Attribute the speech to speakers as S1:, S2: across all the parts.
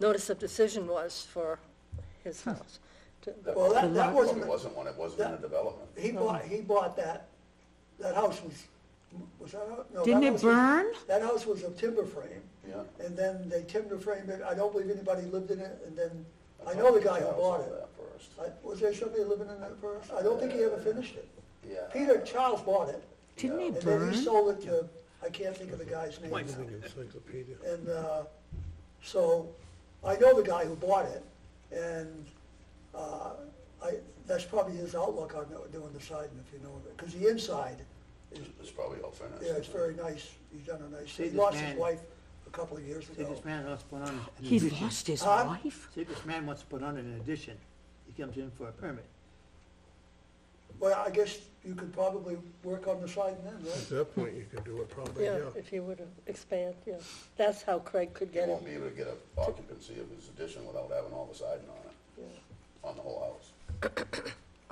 S1: notice of decision was for his house. To-
S2: Well, that, that
S3: Well,
S2: wasn't,
S3: it wasn't one, it wasn't in a development.
S2: he bought, he bought that, that house was, was that, a- no. that
S4: Didn't it
S2: house was-
S4: burn?
S2: That house was a timber frame.
S3: Yeah.
S2: And then they timber framed it, I don't believe anybody lived in it, and then, I
S3: thought
S2: know the
S3: the
S2: guy who
S3: cows
S2: bought
S3: owned
S2: it.
S3: that first.
S2: I- Was there somebody living in that first? I don't think he ever finished it.
S3: Yeah.
S2: Peter Charles bought it,
S4: Didn't
S2: and
S4: it
S2: then
S4: burn?
S2: he sold it to, I can't think of the guy's name now.
S5: Encyclopedia.
S2: And uh, so I know the guy who bought it, and uh, I, that's probably his outlook on doing the side, if you know of it, because the inside is,
S3: It's probably all finished.
S2: yeah, it's very nice. He's done a nice,
S6: See
S2: he
S6: this
S2: lost his
S6: man-
S2: wife a couple of years
S6: See,
S2: ago.
S6: this man wants to put on an
S4: He
S6: addition.
S4: lost his
S2: Huh?
S4: wife?
S6: See, this man wants to put on an addition. He comes in for a permit.
S2: Well, I guess you could probably work on the side then, right?
S5: At that point, you could do it probably,
S1: Yeah,
S5: yeah.
S1: if he would expand, yeah. That's how Craig could
S3: He
S1: get
S3: won't
S1: it.
S3: be able to get a occupancy of his addition without having all the siding on it,
S1: yeah.
S3: on the whole house.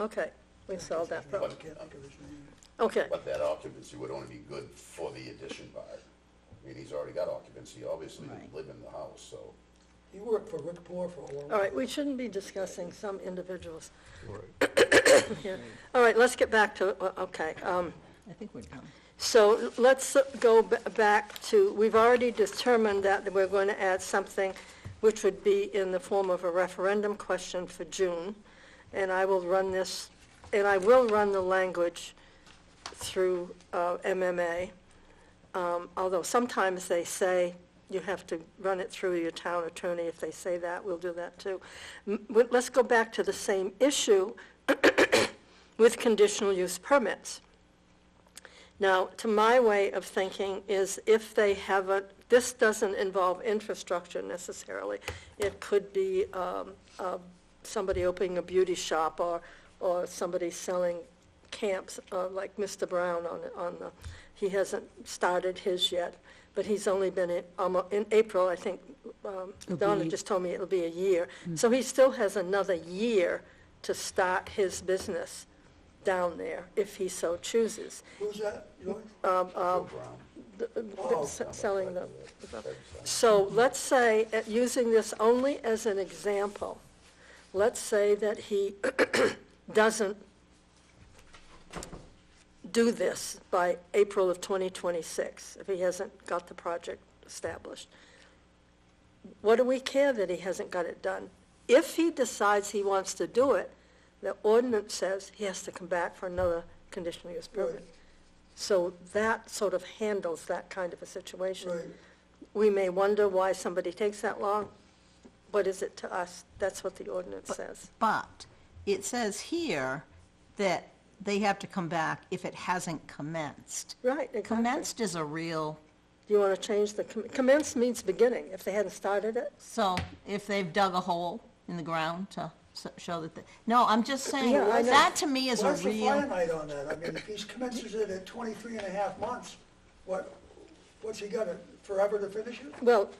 S1: Okay, we solved that
S2: I
S1: problem.
S2: can't think of his name.
S1: Okay,
S3: But that occupancy would only be good for the addition part. I mean, he's already got occupancy, obviously, to
S4: Right.
S3: live in the house, so.
S2: He worked for Rick Poor for a long time.
S1: all right, we shouldn't be discussing some individuals
S5: Right.
S1: here. All right, let's get back to, uh, okay. um,
S4: I think we're done.
S1: So let's go b- back to, we've already determined that we're going to add something which would be in the form of a referendum question for June, and I will run this, and I will run the language through uh, MMA, Um, although sometimes they say you have to run it through your town attorney. If they say that, we'll do that too. M- but Let's go back to the same issue with conditional use permits. Now, to my way of thinking is if they have a, this doesn't involve infrastructure necessarily. It could be um, uh, somebody opening a beauty shop or, or somebody selling camps, uh, like Mr. Brown on, on the, he hasn't started his yet, but he's only been in, almo- in April, I think, um,
S4: It'll
S1: Donna
S4: be- Mm.
S1: just told me it'll be a year. So he still has another year to start his business down there, if he so chooses.
S2: Who's that, Joyce?
S3: Joe Brown,
S2: Oh.
S1: s- selling them. So let's say, uh, using this only as an example, let's say that he doesn't do this by April of 2026, if he hasn't got the project established. What do we care that he hasn't got it done? If he decides he wants to do it, the ordinance says he has to come back for another conditional use permit.
S2: Right.
S1: So that sort of handles that kind of a situation.
S2: Right.
S1: We may wonder why somebody takes that long. What is it to us? That's what the ordinance says.
S7: But it says here that they have to come back if it hasn't commenced.
S1: Right, exactly.
S7: Commenced is a real,
S1: Do you want to change the, com- commence means beginning, if they hadn't started it.
S7: so if they've dug a hole in the ground to s- show that, the- no, I'm just saying,
S1: Yeah, I know.
S7: that to me is a
S2: What's the
S7: real,
S2: finite on that? I mean, if he commences it at 23 and a half months, what, what's he got, forever to finish it?
S1: Well,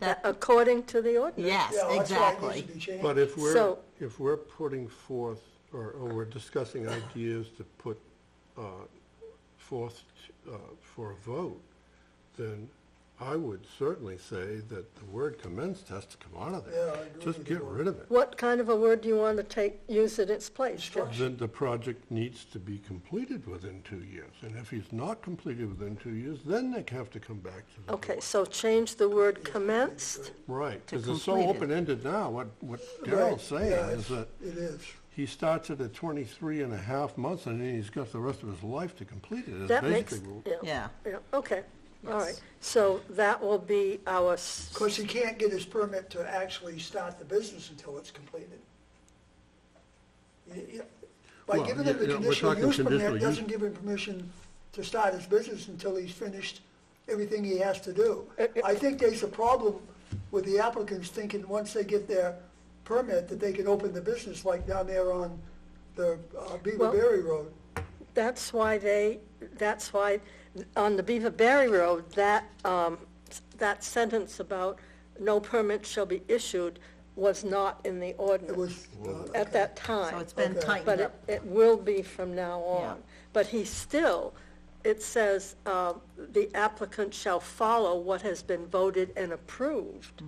S7: That-
S1: according to the ordinance.
S7: yes,
S2: Yeah, that's why it needs to
S7: exactly.
S2: be changed.
S5: But if we're,
S1: So-
S5: if we're putting forth, or, or we're discussing ideas to put, uh, forth, uh, for a vote, then I would certainly say that the word commenced has to come out of there.
S2: Yeah, I agree
S5: Just
S2: with
S5: get
S2: you.
S5: rid of it.
S1: What kind of a word do you want to take, use in its place?
S5: Then the project needs to be completed within two years, and if he's not completed within two years, then they have to come back
S7: Oh,
S5: to the board.
S1: Okay, so change the word commenced.
S5: Right,
S7: to
S5: because it's so
S7: complete it.
S5: open-ended now, what, what
S2: Right,
S5: Daryl's saying
S2: yeah,
S5: is that
S2: It is.
S5: he starts it at 23 and a half months, and then he's got the rest of his life to complete it, is
S1: That makes,
S5: basically what-
S7: Yeah.
S1: Yeah, okay, all right. So that will be our, s-
S2: Because he can't get his permit to actually start the business until it's completed. Y- y- By
S5: Well,
S2: giving him the
S5: yeah, yeah, we're
S2: conditional
S5: talking
S2: use
S5: conditional
S2: permit,
S5: use.
S2: doesn't give him permission to start his business until he's finished everything he has to do. I think there's a problem with the applicants thinking, once they get their permit, that they can open the business like down there on the uh, Beaver
S1: Well-
S2: Berry Road.
S1: that's why they, that's why, on the Beaver Berry Road, that, um, s- that sentence about no permit shall be issued was not in the
S2: It
S1: ordinance
S2: was, uh,
S1: at that time.
S7: So it's been
S2: Okay.
S1: But
S7: tightened
S1: it,
S7: up.
S1: it will be from now on. But he still, it
S7: Mm-hmm.
S1: says, uh, the applicant shall follow what has been voted and approved.